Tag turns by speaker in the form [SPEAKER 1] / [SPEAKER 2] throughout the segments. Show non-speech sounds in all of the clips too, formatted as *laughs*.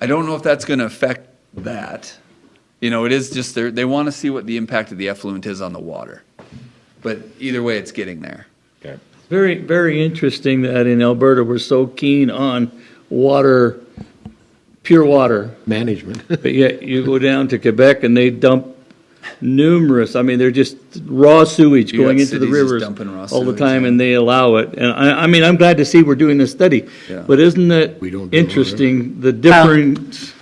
[SPEAKER 1] I don't know if that's going to affect that. You know, it is just, they're, they want to see what the impact of the effluent is on the water. But either way, it's getting there.
[SPEAKER 2] Okay.
[SPEAKER 3] Very, very interesting that in Alberta, we're so keen on water, pure water.
[SPEAKER 4] management.
[SPEAKER 3] *laughs* But yet you go down to Quebec and they dump numerous, I mean, they're just raw sewage
[SPEAKER 1] You got
[SPEAKER 3] going into the
[SPEAKER 1] cities just
[SPEAKER 3] rivers
[SPEAKER 1] dumping raw
[SPEAKER 3] all the
[SPEAKER 1] sewage,
[SPEAKER 3] time
[SPEAKER 1] yeah.
[SPEAKER 3] and they allow it. And I, I mean, I'm glad to see we're doing this study.
[SPEAKER 1] Yeah.
[SPEAKER 3] But isn't it
[SPEAKER 4] We don't do it,
[SPEAKER 3] interesting, the difference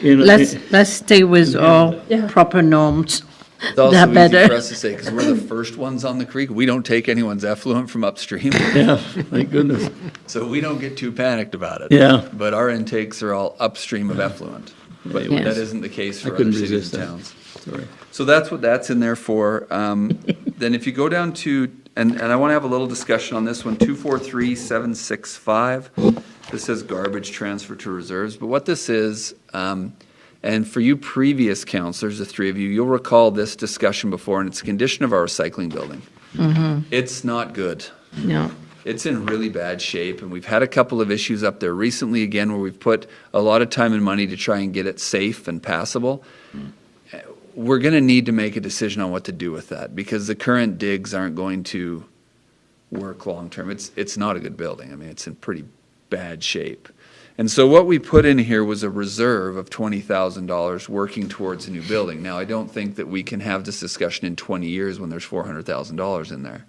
[SPEAKER 3] in.
[SPEAKER 5] Let's, let's stay with our proper norms.
[SPEAKER 1] It's also
[SPEAKER 5] They're
[SPEAKER 1] easy
[SPEAKER 5] better.
[SPEAKER 1] for us to say, because we're the first ones on the creek. We don't take anyone's effluent from upstream, *laughs*
[SPEAKER 3] *laughs* Yeah, thank goodness.
[SPEAKER 1] so we don't get too panicked about it.
[SPEAKER 3] Yeah.
[SPEAKER 1] But our intakes are all upstream of effluent. But
[SPEAKER 5] Yes.
[SPEAKER 1] that isn't the case
[SPEAKER 3] I
[SPEAKER 1] for other
[SPEAKER 3] couldn't
[SPEAKER 1] cities
[SPEAKER 3] resist
[SPEAKER 1] and
[SPEAKER 3] that.
[SPEAKER 1] towns.
[SPEAKER 3] Sorry.
[SPEAKER 1] So that's what that's in there for. Um, Then if you go down to, and, and I want to have a little discussion on this one, 243765. This says garbage transfer to reserves, but what this is, um, and for you previous counselors, the three of you, you'll recall this discussion before, and it's the condition of our recycling building. It's not good
[SPEAKER 5] No,
[SPEAKER 1] it's in really bad shape, and we've had a couple of issues up there recently again where we've put a lot of time and money to try and get it safe and passable. Uh, We're going to need to make a decision on what to do with that because the current digs aren't going to work long term. It's it's not a good building. I mean, it's in pretty bad shape. And so what we put in here was a reserve of twenty thousand dollars working towards a new building. Now I don't think that we can have this discussion in twenty years when there's four hundred thousand dollars in there.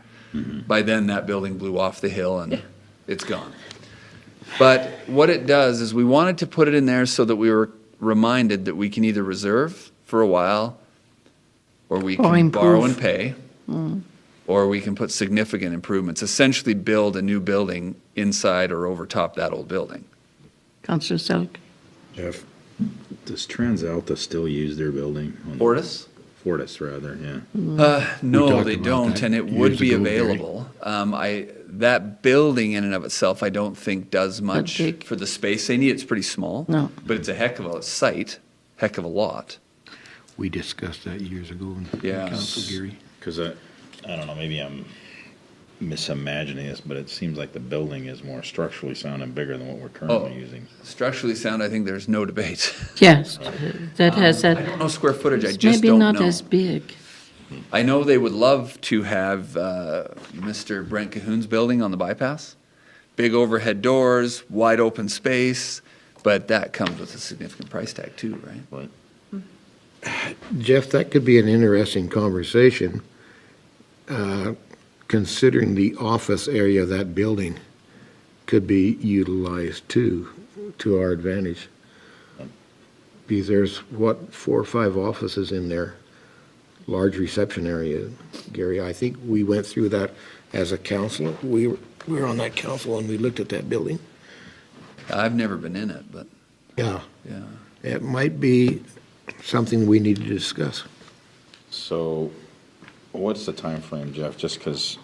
[SPEAKER 1] By then that building blew off the hill and it's gone. But what it does is we wanted to put it in there so that we were reminded that we can either reserve for a while or we
[SPEAKER 5] Or
[SPEAKER 1] can borrow
[SPEAKER 5] improve. Mm.
[SPEAKER 1] and pay or we can put significant improvements, essentially build a new building inside or over top that old building.
[SPEAKER 5] Councillor Selk.
[SPEAKER 2] Jeff,
[SPEAKER 6] Does TransAlta still use their building? on-
[SPEAKER 1] Fortis?
[SPEAKER 6] Fortis, rather, yeah.
[SPEAKER 1] Uh, no,
[SPEAKER 4] talked
[SPEAKER 1] they
[SPEAKER 4] about
[SPEAKER 1] don't,
[SPEAKER 4] that
[SPEAKER 1] and it would
[SPEAKER 4] years
[SPEAKER 1] be
[SPEAKER 4] ago, Gary.
[SPEAKER 1] available. Um, I, that building in and of itself, I don't think does much
[SPEAKER 5] big.
[SPEAKER 1] for the space they need. It's pretty small.
[SPEAKER 5] No.
[SPEAKER 1] But it's a heck of a site, heck of a lot.
[SPEAKER 4] We discussed that years ago in
[SPEAKER 1] Yeah.
[SPEAKER 4] Council Gary.
[SPEAKER 6] Because I, I don't know, maybe I'm misimagining this, but it seems like the building is more structurally sound and bigger than what we're
[SPEAKER 1] Oh.
[SPEAKER 6] currently using.
[SPEAKER 1] Structurally sound, I think there's no debate.
[SPEAKER 5] Yes, that has
[SPEAKER 1] *laughs* I don't
[SPEAKER 5] that,
[SPEAKER 1] know square footage, I
[SPEAKER 5] Uh, it's
[SPEAKER 1] just
[SPEAKER 5] maybe
[SPEAKER 1] don't know.
[SPEAKER 5] not as big.
[SPEAKER 1] I know they would love to have uh, Mr. Brent Cahoon's building on the bypass. Big overhead doors, wide open space, but that comes with a significant price tag too, right?
[SPEAKER 6] Right.
[SPEAKER 4] Jeff, that could be an interesting conversation, uh, considering the office area of that building could be utilized too, to our advantage. Because there's, what, four or five offices in there, large reception area. Gary, I think we went through that as a council. We were, we were on that council and we looked at that building.
[SPEAKER 1] I've never been in it, but
[SPEAKER 4] Yeah.
[SPEAKER 1] yeah.
[SPEAKER 4] It might be something we need to discuss.
[SPEAKER 6] So what's the time frame, Jeff? Just because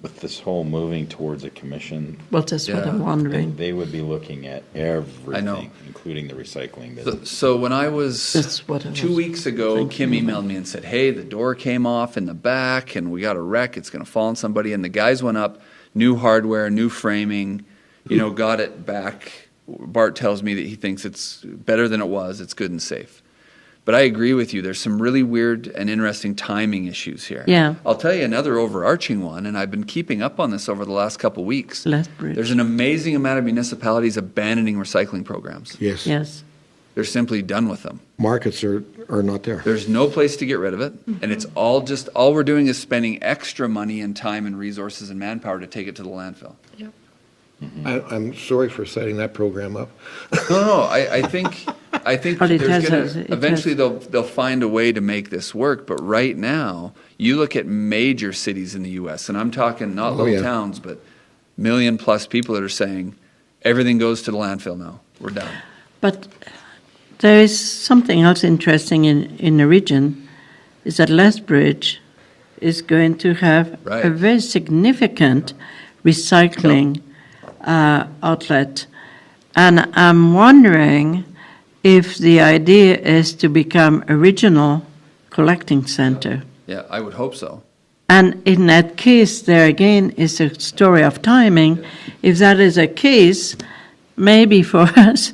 [SPEAKER 6] with this whole moving towards a commission,
[SPEAKER 5] Well, that's what I'm
[SPEAKER 1] Yeah.
[SPEAKER 6] they,
[SPEAKER 5] wondering.
[SPEAKER 6] they would be looking at everything, including the recycling.
[SPEAKER 1] So,
[SPEAKER 6] business.
[SPEAKER 1] so when I was
[SPEAKER 5] That's what I
[SPEAKER 1] two
[SPEAKER 5] was
[SPEAKER 1] weeks ago, Kim emailed me and said, "Hey, the door came off in the back, and we got a wreck. It's going to fall on somebody." And the guys went up, new hardware, new framing, you
[SPEAKER 5] Hmm.
[SPEAKER 1] know, got it back. Bart tells me that he thinks it's better than it was. It's good and safe. But I agree with you. There's some really weird and interesting timing issues here.
[SPEAKER 5] Yeah.
[SPEAKER 1] I'll tell you another overarching one, and I've been keeping up on this over the last couple weeks.
[SPEAKER 5] Lethbridge.
[SPEAKER 1] There's an amazing amount of municipalities abandoning recycling programs.
[SPEAKER 4] Yes.
[SPEAKER 5] Yes,
[SPEAKER 1] They're simply done with them.
[SPEAKER 4] Markets are, are not there.
[SPEAKER 1] There's no place to get rid of it, and it's all just, all we're doing is spending extra money and time and resources and manpower to take it to the landfill.
[SPEAKER 4] I, I'm sorry for setting that program up.
[SPEAKER 1] No, no, I, I think, I think
[SPEAKER 5] But it
[SPEAKER 1] there's
[SPEAKER 5] has
[SPEAKER 1] gonna,
[SPEAKER 5] a- it
[SPEAKER 1] eventually
[SPEAKER 5] has-
[SPEAKER 1] they'll, they'll find a way to make this work, but right now, you look at major cities in the US, and I'm talking not
[SPEAKER 4] Oh,
[SPEAKER 1] little
[SPEAKER 4] yeah.
[SPEAKER 1] towns, but million-plus people that are saying, everything goes to the landfill now, we're done.
[SPEAKER 5] but there is something else interesting in, in the region, is that Lethbridge is going to have
[SPEAKER 1] Right.
[SPEAKER 5] a very significant recycling uh, outlet. And I'm wondering if the idea is to become a regional collecting center.
[SPEAKER 1] Yeah, I would hope so.
[SPEAKER 5] And in that case, there again is a story of timing. If that is a case, maybe for *laughs* us,